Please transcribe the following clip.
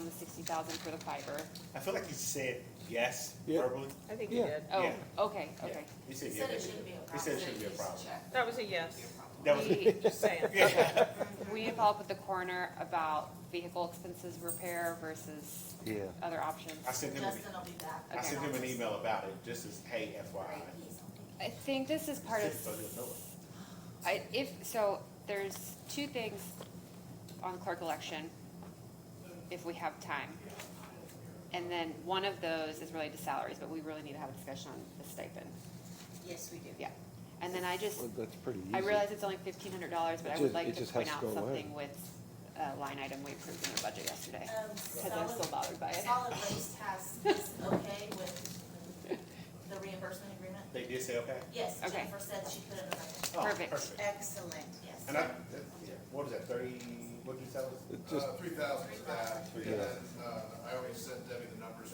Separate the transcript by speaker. Speaker 1: thousand for the fiber.
Speaker 2: I feel like he said yes
Speaker 3: Yeah.
Speaker 2: verbally.
Speaker 4: I think you
Speaker 3: Yeah.
Speaker 4: did.
Speaker 1: Oh,
Speaker 2: Yeah.
Speaker 1: okay, okay.
Speaker 2: He said
Speaker 5: He
Speaker 2: yeah.
Speaker 5: said it shouldn't be a problem.
Speaker 2: He said it shouldn't be a problem.
Speaker 4: That was a yes,
Speaker 2: That was,
Speaker 1: We-
Speaker 4: just saying.
Speaker 2: yeah,
Speaker 1: We need to follow up with the coroner about vehicle expenses repair versus
Speaker 3: Yeah.
Speaker 1: other options.
Speaker 2: I sent him, an- e-
Speaker 5: Justin will be back.
Speaker 2: I sent him an email about it, just as, hey, FYI.
Speaker 1: I think this is part of,
Speaker 2: So he'll know it.
Speaker 1: I, if, so there's two things on clerk election, if we have time. And then one of those is related to salaries, but we really need to have a discussion on the stipend,
Speaker 5: Yes, we do.
Speaker 1: yeah. And then I just,
Speaker 3: Well, that's pretty easy.
Speaker 1: I realize it's only fifteen hundred dollars, but
Speaker 3: It
Speaker 1: I
Speaker 3: just-
Speaker 1: would
Speaker 3: it
Speaker 1: like to
Speaker 3: just has
Speaker 1: point
Speaker 3: to
Speaker 1: out
Speaker 3: go away.
Speaker 1: something with, uh, line item we approved in the budget yesterday,
Speaker 5: Um,
Speaker 1: cause I'm still
Speaker 5: solid,
Speaker 1: bothered by it.
Speaker 5: solid waste has, is okay with the reimbursement agreement?
Speaker 2: They did say okay?
Speaker 5: Yes,
Speaker 1: Okay.
Speaker 5: Jennifer said she put it in the record.
Speaker 2: Oh,
Speaker 1: Perfect.
Speaker 5: Excellent, yes.
Speaker 2: And I, that- yeah, what was that, thirty, what did you tell us?
Speaker 3: It
Speaker 6: Uh,
Speaker 3: just-
Speaker 6: three thousand for that, and
Speaker 3: Yeah.
Speaker 6: then, uh, I always send